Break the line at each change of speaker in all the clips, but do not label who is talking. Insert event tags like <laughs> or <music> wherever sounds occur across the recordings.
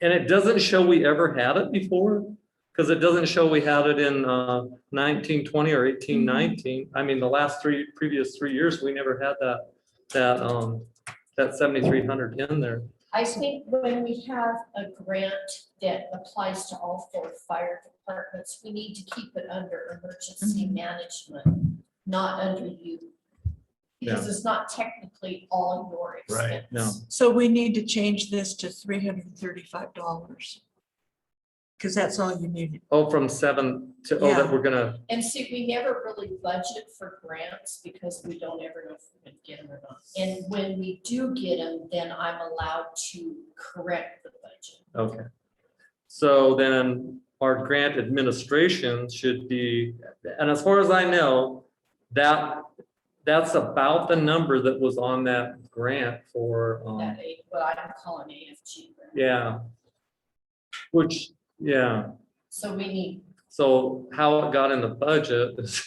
And it doesn't show we ever had it before, because it doesn't show we had it in uh, nineteen twenty or eighteen nineteen. I mean, the last three, previous three years, we never had that, that, um, that seventy-three hundred in there.
I think when we have a grant that applies to all four fire departments, we need to keep it under emergency management, not under you. Because it's not technically all your
Right,
expense.
no.
So we need to change this to three hundred and thirty-five dollars. Because that's all you needed.
Oh, from seven to, oh, that
Yeah.
we're gonna,
And see, we never really budget for grants because we don't ever know if we're gonna get them or not. And when we do get them, then I'm allowed to correct the budget.
okay. So then our grant administration should be, and as far as I know, that, that's about the number that was on that grant for, um,
That, A- what I'm calling AFG. grant.
Yeah. Which, yeah,
So we need,
so how it got in the budget <laughs> is.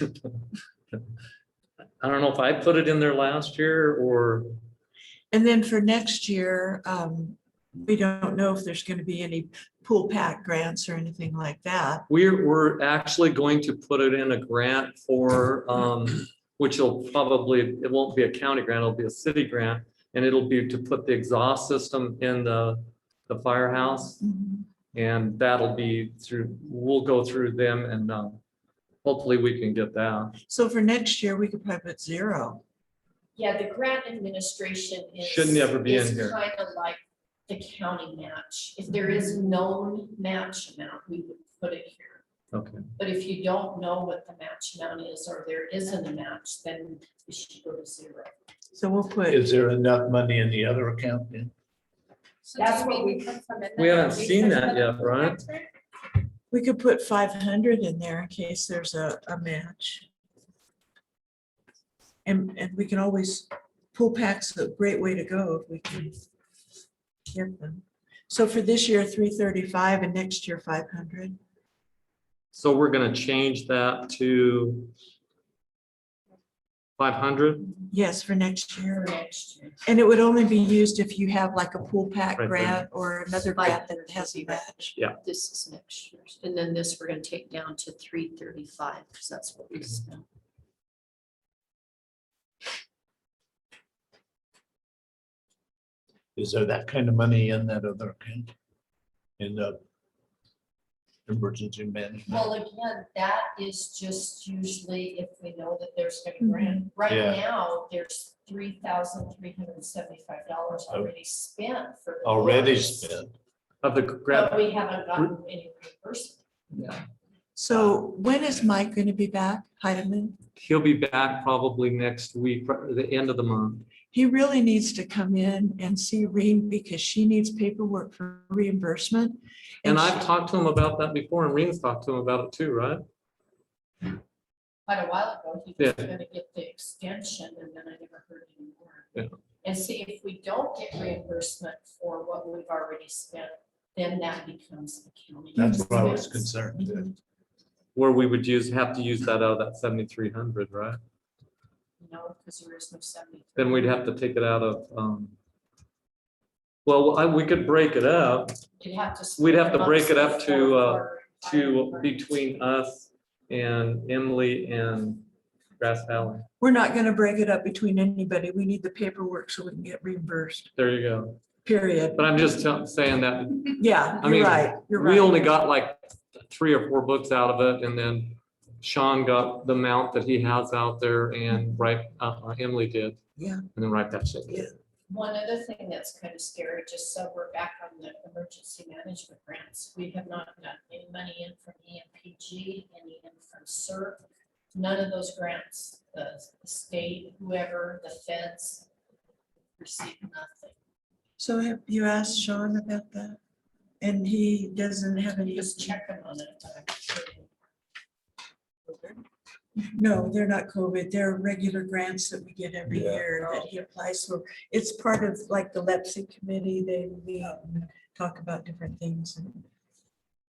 I don't know if I put it in there last year or,
And then for next year, um, we don't know if there's gonna be any pool pack grants or anything like that.
we're, we're actually going to put it in a grant for, um, which will probably, it won't be a county grant, it'll be a city grant. And it'll be to put the exhaust system in the, the firehouse. And that'll be through, we'll go through them and, um, hopefully we can get that.
So for next year, we could probably put zero.
yeah, the grant administration is.
Shouldn't ever be in here.
Kind of like the county match. If there is known match amount, we would put it here.
Okay.
But if you don't know what the match amount is, or there isn't a match, then it should go to zero.
So we'll put,
Is there enough money in the other account then?
That's what we-
We haven't seen that yet, right?
we could put five hundred in there in case there's a, a match. And, and we can always, pool packs a great way to go if we can get them. So for this year, three thirty-five and next year, five hundred.
So we're gonna change that to five hundred?
Yes, for next
For
year.
next year.
And it would only be used if you have like a pool pack
Right, right.
grant or another grant that has a match.
This is next year's, and then this we're gonna take down to three thirty-five, because that's what we spent.
Is there that kind of money in that other account? In the emergency management?
Well, again, that is just usually if we know that there's a
Mm-hmm.
grant. Right
Yeah.
now, there's three thousand three hundred and seventy-five dollars already spent for. the
Oh. Already
grants,
spent.
Of the
But
grant,
we haven't gotten any reimbursement.
So when is Mike going to be back, Heidemann?
he'll be back probably next week, pro- the end of the month.
He really needs to come in and see Reen because she needs paperwork for reimbursement.
And I've
she-
talked to him about that before, and Reen's talked to him about it too, right?
quite a while ago, he was
Yeah.
gonna get the extension and then I never heard
Yeah.
anymore. And see, if we don't get reimbursement for what we've already spent, then that becomes the county.
That's what I was
expense.
concerned with.
Where we would use, have to use that out of that seventy-three hundred, right?
You know, because there is no seventy.
Then we'd have to take it out of, um, well, I, we could break it up
You'd have to.
We'd have to
split
break it up
amongst
to,
the
uh,
four
to
fire departments.
between us and Emily and Grass Valley.
We're not going to break it up between anybody. We need the paperwork so we can get reimbursed,
There you go.
period.
But I'm just tell- saying that
Yeah,
I mean,
you're right, you're
We
right.
only got like three or four books out of it and then Sean got the amount that he has out there and right, uh, Emily did.
Mm-hmm. Yeah.
And then write that shit.
Yeah.
One other thing that's kind of scary, just so we're back on the emergency management grants, we have not gotten any money in from E EMPG, any in from CERC. None of those grants, the the state, whoever, the feds, received nothing.
So have you asked Sean about that? And he doesn't have any.
Just checking on it. but I'm sure
No, they're not COVID. They're regular grants that we get every
Yeah.
year that he applies for. It's part of like the LEPSI committee. They meet and talk about different things. and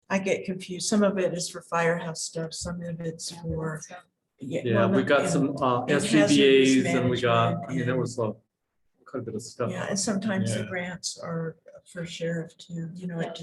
I get confused. Some of it is for firehouse stuff, some of it's for.
Yeah,
well,
we got
and-
some, uh,
and
SCBA's
hazardous
and we got,
management
I mean, there
and-
was a, quite a bit of stuff.
Yeah, and sometimes the
Yeah.
grants are for sheriff too, you know,
Yeah.
it just.